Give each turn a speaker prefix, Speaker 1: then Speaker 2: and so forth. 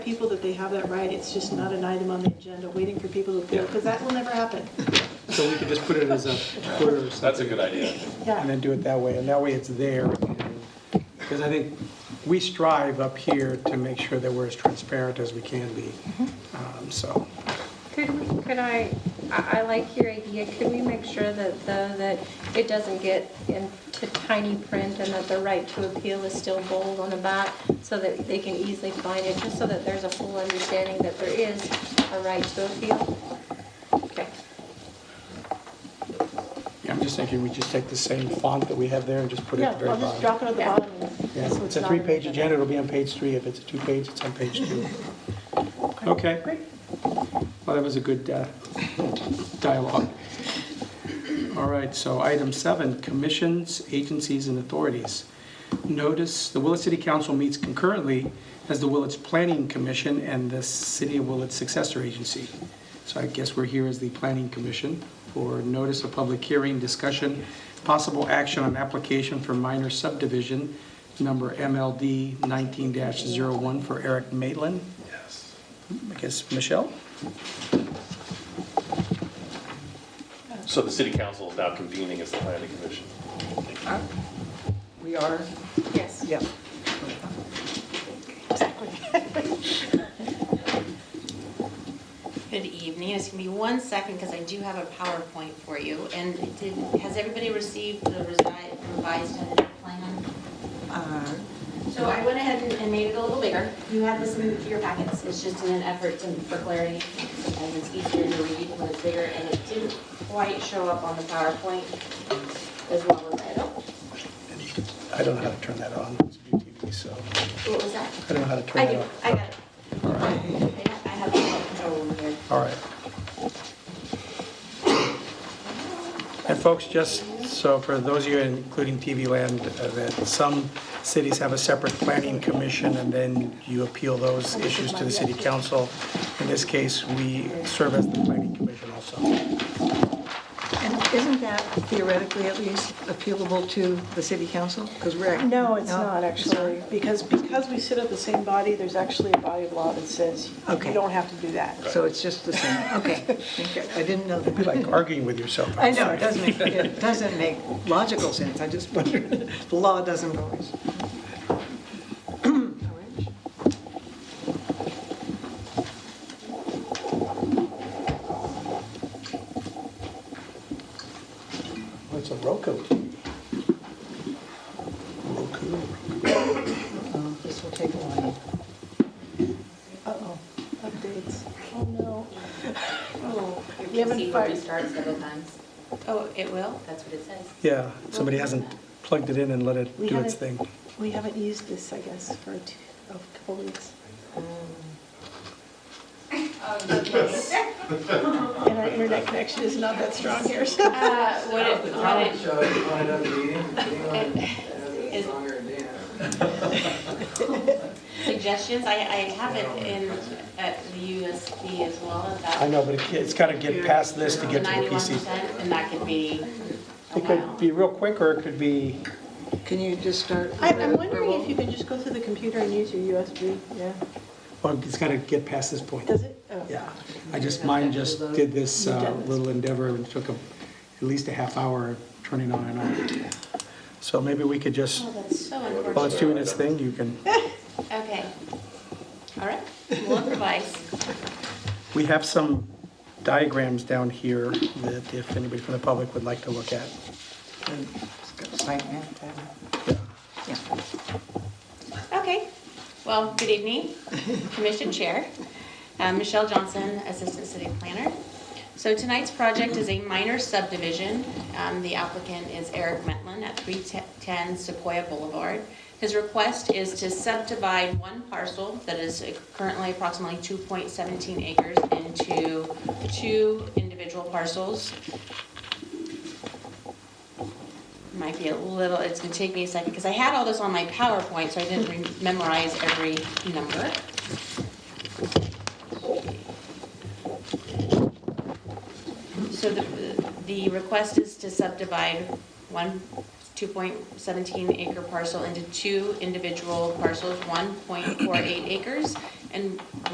Speaker 1: people that they have that right, it's just not an item on the agenda, waiting for people to pull,
Speaker 2: Yeah.
Speaker 1: because that will never happen.
Speaker 2: So we could just put it as a quarter or
Speaker 3: That's a
Speaker 2: something,
Speaker 3: good idea.
Speaker 2: and
Speaker 1: Yeah,
Speaker 2: then do it that way, and that way it's there. Because I think we strive up here to make sure that we're as transparent as we can be,
Speaker 1: Mm-hmm.
Speaker 2: Um, so.
Speaker 4: Could we, could I, I, I like your idea, could we make sure that, though, that it doesn't get into tiny print and that the right to appeal is still bold on the back, so that they can easily find it, just so that there's a full understanding that there is a right to appeal? Okay.
Speaker 2: Yeah, I'm just thinking we just take the same font that we have there and just put it
Speaker 1: yeah,
Speaker 2: at the very
Speaker 1: I'll just
Speaker 2: bottom.
Speaker 1: drop it at the
Speaker 4: Yeah.
Speaker 1: bottom.
Speaker 2: Yeah, It's a three-page agenda, it'll be on page three. If it's a two-page, it's on page two. Okay.
Speaker 1: Great.
Speaker 2: Well, that was a good uh, dialogue. All right, so item seven, commissions, agencies, and authorities. Notice, the Willett City Council meets concurrently as the Willits Planning Commission and the City of Willits Successor Agency. So I guess we're here as the Planning Commission for notice of public hearing, discussion, possible action on application for minor subdivision, number MLD 19-01 for Eric Maitland.
Speaker 3: Yes.
Speaker 2: I guess, Michelle?
Speaker 3: So the city council is now convening as the planning commission.
Speaker 2: We are.
Speaker 4: Yes.
Speaker 2: Yep.
Speaker 5: Good evening. It's going to be one second because I do have a PowerPoint for you. And did, has everybody received the resi- revised plan? Uh, So I went ahead and- and made it a little bigger. You had this in your packets. It's just in an effort to, for clarity. And it's easier to read when it's bigger and it didn't quite show up on the PowerPoint as well as I don't.
Speaker 2: I don't know how to turn that on, it's view TV, so
Speaker 5: What was that?
Speaker 2: I don't know how to turn
Speaker 5: I
Speaker 2: that
Speaker 5: do.
Speaker 2: on.
Speaker 5: I got it.
Speaker 2: All right,
Speaker 5: I have- I have it control over here.
Speaker 2: all right. And folks, just so for those of you, including TV Land, uh, that some cities have a separate planning commission, and then you appeal those issues to the city council. In this case, we serve as the planning commission also.
Speaker 6: And isn't that theoretically at least appealable to the city council? Because we're. act-
Speaker 1: No, it's not
Speaker 6: it's
Speaker 1: actually, because, because we sit at the same body, there's actually a body of law that says you
Speaker 6: Okay.
Speaker 1: don't have to do that.
Speaker 6: not? So it's just the same, okay. Thank you. I didn't know
Speaker 2: It'd be
Speaker 6: that.
Speaker 2: like arguing with yourself.
Speaker 6: I know, it doesn't make, it doesn't make logical sense, I just wondered, the law doesn't always.
Speaker 2: Oh, It's a Roku. Roku.
Speaker 6: Oh, This will take a while.
Speaker 1: Uh-oh, updates. Oh, no. Oh,
Speaker 5: Your
Speaker 1: we haven't
Speaker 5: PC will
Speaker 1: fired-
Speaker 5: restart several times. Oh, it will? That's what it says.
Speaker 2: Yeah, somebody hasn't plugged it in and let it
Speaker 1: We
Speaker 2: do its
Speaker 1: haven't-
Speaker 2: thing.
Speaker 1: We haven't used this, I guess, for two- a couple weeks. And our internet connection is not that strong here, so.
Speaker 5: Uh, What it, what it,
Speaker 7: Show, you want another meeting? Anyone
Speaker 5: Is-
Speaker 7: that's uh, longer than Dan?
Speaker 5: suggestions, I, I have it in, at the USB as well,
Speaker 2: I
Speaker 5: about
Speaker 2: know, but it- it's got to get past this to
Speaker 5: the
Speaker 2: get to the
Speaker 5: ninety-one
Speaker 2: PC.
Speaker 5: percent, and that could be a
Speaker 2: It could
Speaker 5: while.
Speaker 2: be real quick, or it could be,
Speaker 6: Can you just start?
Speaker 1: I- I'm wondering if you can just go through the computer and use your USB, yeah.
Speaker 2: well, it's got to get past this point.
Speaker 1: Does it? Oh.
Speaker 2: Yeah, I just, mine just did this uh, little endeavor and took a- at least a half hour turning on and off. So maybe we could just,
Speaker 5: Oh, that's so
Speaker 2: while it's
Speaker 5: unfortunate.
Speaker 2: doing its thing, you can,
Speaker 5: Okay. All right, we'll improvise.
Speaker 2: we have some diagrams down here that if anybody from the public would like to look at.
Speaker 6: Site map, that- yeah.
Speaker 5: Okay, well, good evening, Commission Chair. Um, Michelle Johnson, Assistant City Planner. So tonight's project is a minor subdivision. Um, The applicant is Eric Metlin at 310 Sequoia Boulevard. His request is to subdivide one parcel that is currently approximately 2.17 acres into two individual parcels might be a little, it's gonna take me a second, because I had all this on my PowerPoint, so I didn't re- memorize every number. So the, the request is to subdivide one 2.17 acre parcel into two individual parcels, 1.48 acres and